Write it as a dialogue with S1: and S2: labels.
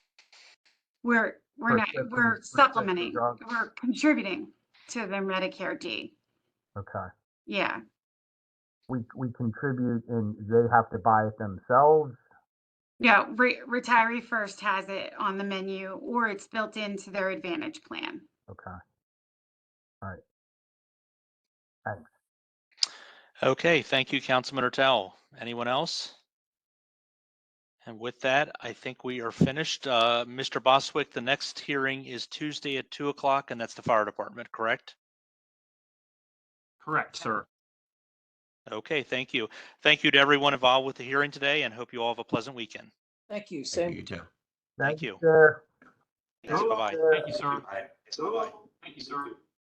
S1: We're, we're not,
S2: Prescription-
S1: we're
S2: prescription
S1: supplementing,
S2: drugs.
S1: we're contributing to the Medicare D.
S2: Okay.
S1: Yeah,
S2: We, we contribute and they have to buy it themselves.
S1: yeah, re- retiree first has it on the menu or it's built into their advantage plan.
S2: Okay.
S3: Okay, thank you, Councilman Ortel. Anyone else? And with that, I think we are finished. Uh, Mr. Boswick, the next hearing is Tuesday at two o'clock, and that's the fire department, correct?
S4: Correct, sir.
S3: Okay, thank you. Thank you to everyone involved with the hearing today and hope you all have a pleasant weekend.
S5: Thank you, Sam.
S6: Thank you, too.
S3: Thank you.
S2: sir.
S3: Thanks, Bye-bye.
S4: Thank you, sir.
S6: Bye. Bye.
S4: Thank you, sir.